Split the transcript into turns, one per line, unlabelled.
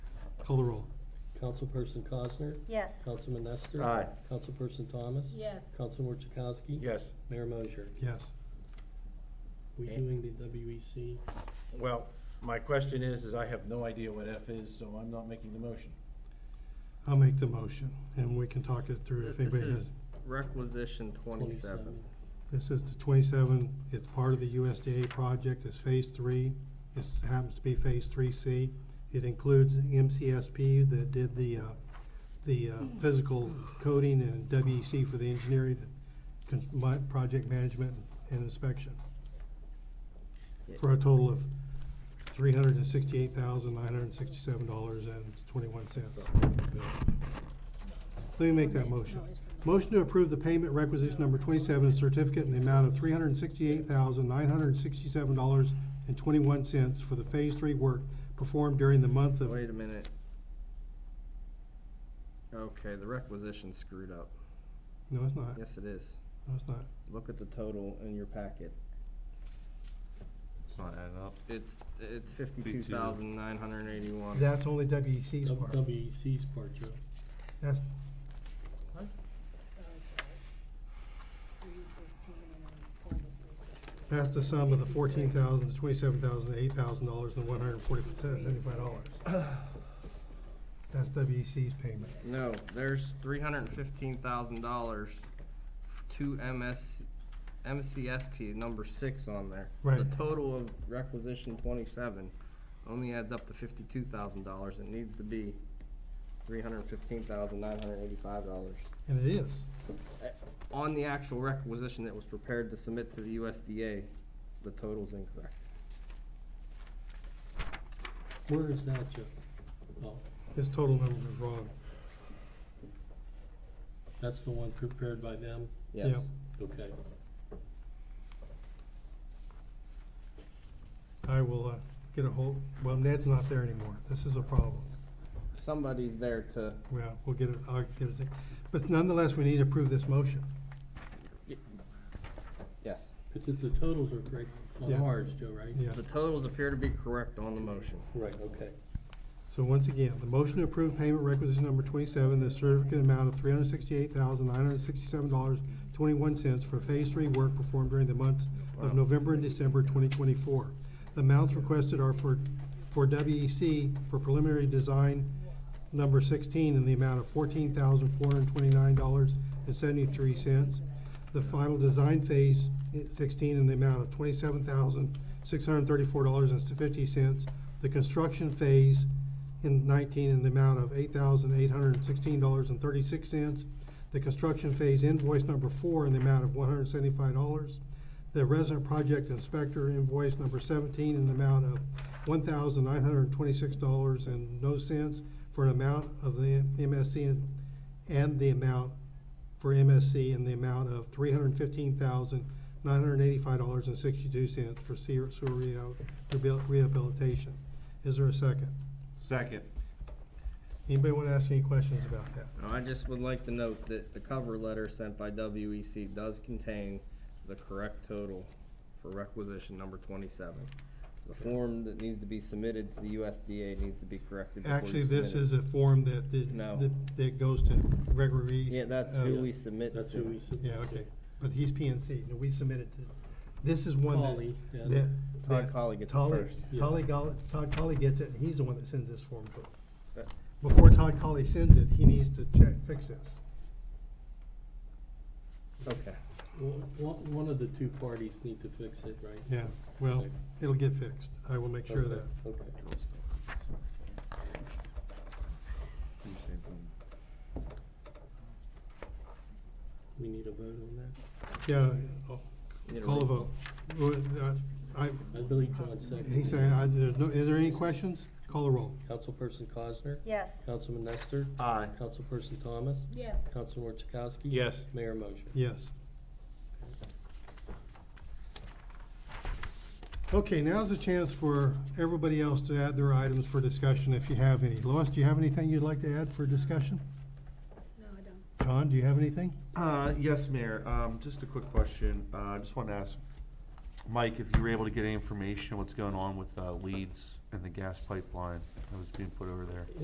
Call the roll.
Councilperson Cosner?
Yes.
Councilman Nestor?
Aye.
Councilperson Thomas?
Yes.
Councilman Chakowski?
Yes,
Mayor Mosher?
Yes.
We doing the E WEC?
well, my question is, is I have no idea what F is, so I'm not making the motion.
I'll make the motion, and we can talk it through if
This
anybody
is
has.
requisition twenty-seven.
This is the twenty-seven, it's part of the USDA project, it's phase three, it happens to be phase three C. It includes MCSP that did the, uh, the, uh, physical coding and WEC for the engineering, cons- my, project management and inspection. For a total of three hundred and sixty-eight thousand, nine hundred and sixty-seven dollars and twenty-one cents. Let me make that motion. Motion to approve the payment requisition number twenty-seven, a certificate in the amount of three hundred and sixty-eight thousand, nine hundred and sixty-seven dollars and twenty-one cents for the phase three work performed during the month of.
Wait a minute. Okay, the requisition screwed up.
No, it's not.
Yes, it is.
No, it's not.
Look at the total in your packet.
It's not adding up.
It's, it's fifty-two thousand nine hundred and eighty-one.
That's only WEC's part.
WEC's E part, Joe.
That's, that's the sum of the fourteen thousand, the twenty-seven thousand, eight thousand dollars and one hundred and forty-five dollars. That's WEC's payment.
No, there's three hundred and fifteen thousand dollars to MS, MCSP, number six on there. The
Right.
total of requisition twenty-seven only adds up to fifty-two thousand dollars. It needs to be three hundred and fifteen thousand nine hundred and eighty-five dollars.
And it is.
On the actual requisition that was prepared to submit to the USDA, the total's incorrect.
Where is that, Joe? Oh,
His total number is wrong.
that's the one prepared by them?
Yes.
Yep.
Okay.
I will, uh, get a hold, well, Ned's not there anymore. This is a problem.
Somebody's there to,
Well, we'll get it, I'll get it. But nonetheless, we need to approve this motion.
yes.
It's that the totals are correct on
Yeah.
ours, Joe, right?
Yeah.
The totals appear to be correct on the motion.
Right, okay.
So once again, the motion to approve payment requisition number twenty-seven, the certificate amount of three hundred sixty-eight thousand, nine hundred sixty-seven dollars, twenty-one cents for phase three work performed during the months of November and December twenty twenty-four. The amounts requested are for, for WEC for preliminary design number sixteen in the amount of fourteen thousand, four hundred twenty-nine dollars and seventy-three cents. The final design phase at sixteen in the amount of twenty-seven thousand, six hundred thirty-four dollars and fifty cents. The construction phase in nineteen in the amount of eight thousand eight hundred and sixteen dollars and thirty-six cents. The construction phase invoice number four in the amount of one hundred seventy-five dollars. The resident project inspector invoice number seventeen in the amount of one thousand nine hundred and twenty-six dollars and no cents for an amount of the MSC and- and the amount for MSC in the amount of three hundred and fifteen thousand nine hundred and eighty-five dollars and sixty-two cents for sewer sewer rehabil- rehabil- rehabilitation. Is there a second?
Second.
Anybody want to ask any questions about that?
Now, I just would like to note that the cover letter sent by WEC does contain the correct total for requisition number twenty-seven. The form that needs to be submitted to the USDA needs to be corrected before you
Actually, this
submit it.
is a form that, the-
No.
that, that goes to Gregory Reeves.
Yeah, that's
uh,
who we submit
That's who we
to.
submitted.
Yeah, okay, but he's PNC, and we submitted to, this is one
Polly, yeah.
that, that.
Todd
that
Colley gets it
Colley-
first.
Yeah.
Colley Goll- Todd Colley gets it, and he's the one that sends this form to him.
Right.
Before Todd Colley sends it, he needs to check, fix this.
Okay.
One, one- one of the two parties need to fix it, right?
Yeah, well, it'll get fixed, I will make sure of that.
Okay. We need a vote on that?
Yeah,
Need a
call a
roll-
vote. Well, uh, I,
I believe John seconded.
he's saying, I, there's no, is there any questions? Call the roll.
Councilperson Cosner?
Yes.
Councilman Nestor?
Aye.
Councilperson Thomas?
Yes.
Councilor Chakowski?
Yes.
Mayor Mosher?
Yes. Okay, now's the chance for everybody else to add their items for discussion if you have any. Lois, do you have anything you'd like to add for discussion?
No, I don't.
John, do you have anything?
Uh, yes, Mayor, um, just a quick question, uh, I just wanted to ask, Mike, if you were able to get any information, what's going on with, uh, Leeds and the gas pipeline that was being put over there?